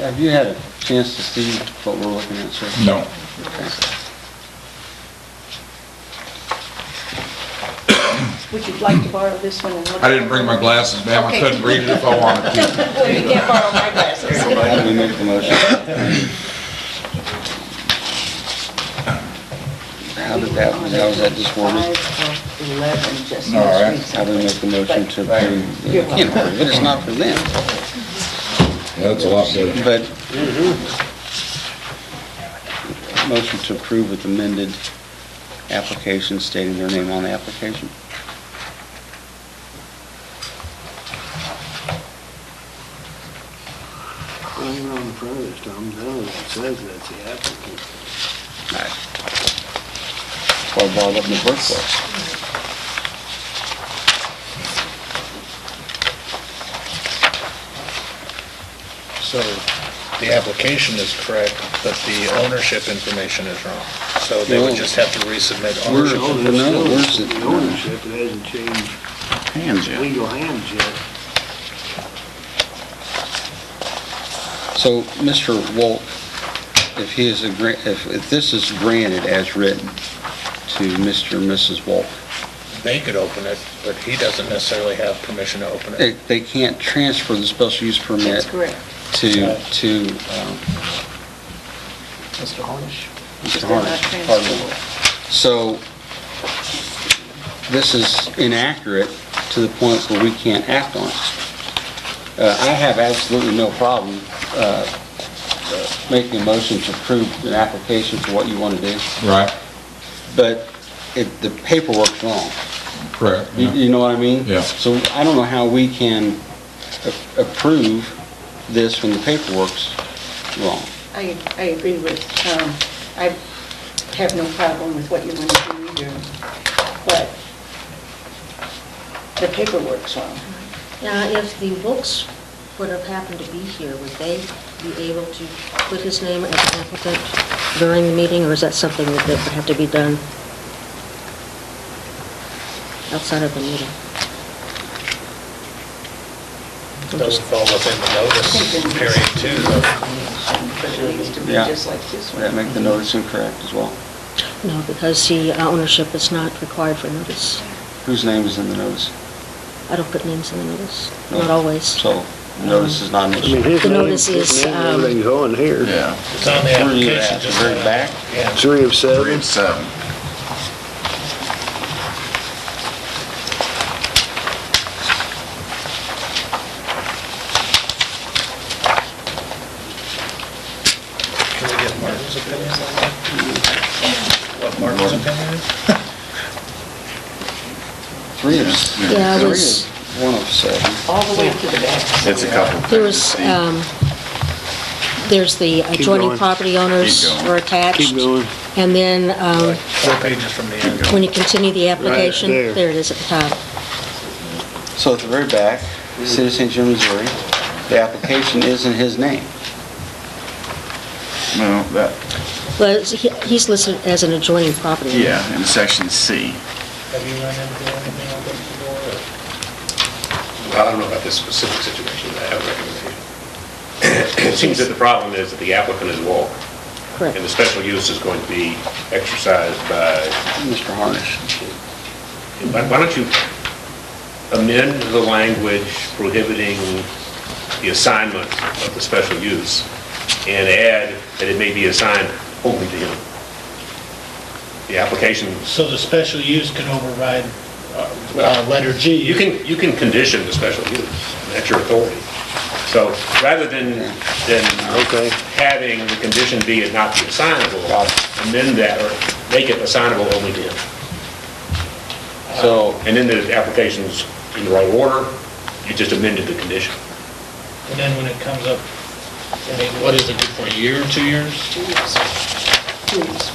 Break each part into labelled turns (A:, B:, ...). A: Have you had a chance to see what we're looking at, sir?
B: No.
C: Would you like to borrow this one and look?
B: I didn't bring my glasses, ma'am. I
C: Okay.
B: couldn't read it if I wanted to.
C: Well, you can't borrow my glasses.
A: How do we make the motion? How did that, how was that just worded?
C: Oh, Five of 11, just
B: All right.
C: most
A: How do we
C: recently.
A: make the motion to approve? You can't approve it, it's not for them,
B: That's a lot better.
A: but... Motion to approve with amended application stating their name on the application.
D: Well, you're on the front of this, Tom, now it says that's the applicant.
A: That's why I brought it up in the first place.
E: So the application is correct, but the ownership information is wrong. So they would just have to resubmit
A: We're-
E: ownership.
D: No,
A: no,
D: there's still
A: where's it?
D: the Ownership, it hasn't changed
A: Hands
D: legal hands yet.
A: So, Mr. Wolk, if he is, agree- if, if this is granted as written to Mr. and Mrs. Wolk,
E: They could open it, but he doesn't necessarily have permission to open
A: they,
E: it.
A: they can't transfer the special use
C: That's
A: permit
C: correct.
A: to, to, um,
E: Mr. Harnish?
A: Mr.
C: They're not
A: Harnish.
C: transferable.
A: So, this is inaccurate to the point where we can't act on it. Uh, I have absolutely no problem, uh, uh, making a motion to approve an application for what you want to do,
B: Right,
A: but it, the paperwork's wrong.
B: correct.
A: You- You know what I mean?
B: Yeah.
A: So I don't know how we can a- approve this when the paperwork's wrong.
C: I, I agree with, um, I have no problem with what you want to do either, but the paperwork's wrong.
F: Now, if the Wilks would have happened to be here, would they be able to put his name as an applicant during the meeting, or is that something that that would have to be done outside of the meeting?
E: Doesn't fall within the
C: I think
E: notice
C: the-
E: period too, though.
C: But it needs to be
A: Yeah.
C: just like this
A: Would
C: one.
A: that make the notice incorrect as well?
F: No, because the uh, ownership is not required for notice.
A: Whose name is in the notice?
F: I don't put names in the notice,
A: No.
F: not always.
A: So, the notice is not an
D: I mean,
A: issue.
D: his
F: The
D: name-
F: notice
D: his
F: is,
D: name and
F: um,
D: Everything's on here.
G: Yeah,
E: It's on the
A: Where are you
E: application,
A: at, the
E: just uh,
A: very
E: not-
A: back?
E: Yeah.
D: Three
G: three
D: of
F: um,
D: seven.
G: of seven.
E: Can we get Martin's opinion on that? What Martin's opinion is?
A: Three of, s-
F: Yeah,
A: three
F: it
A: of,
F: was,
A: one of seven.
C: All the way to the back.
G: It's a couple.
F: there was,
G: pages.
F: um, there's the
D: Keep
F: adjoining
D: going.
F: property owners
G: Keep going.
F: were attached.
D: Keep going.
F: And then, um,
E: Four pages from the end.
F: when you continue the application,
D: there.
F: there it is at the top.
A: So at the very back, City of St. Jim, Missouri, the application is in his name.
G: No, that,
F: Well, it's- he- he's listed as an adjoining property.
G: yeah, in section C.
E: Have you run into anything like this before? or-
H: I don't know about this specific situation, but I have a recommendation. It seems that the problem is that the applicant is Walk,
F: Correct.
H: and the special use is going to be exercised by,
A: Mr. Harnish.
H: why why don't you amend the language prohibiting the assignment of the special use and add that it may be assigned only to him? The application,
I: So the special use can override uh, uh, letter G?
H: you can, you can condition the special use, that's your authority. So rather than, than
D: Okay.
H: having the condition be it not be assignable, amend that or make it assignable only to him.
A: So,
H: And then the application's in the right order, you just amended the condition.
I: And then when it comes up, I mean, what is it good for, a year, two years?
C: Please.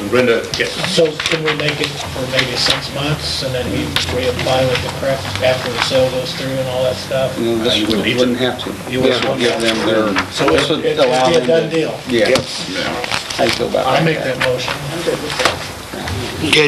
H: And Brenda, yes,
I: So can we make it for maybe six months and then he reapply with the correct after the sale goes through and all that stuff?
A: you know, this
H: You wouldn't need to.
A: wouldn't have to.
I: You
A: This would give
I: wouldn't.
A: them their,
I: So
A: this would
I: it- it'd
A: allow
I: be a
A: them
I: done
A: to-
I: deal.
A: Yeah. I feel about that.
I: I make that motion.
C: I'm good with that.
D: Okay,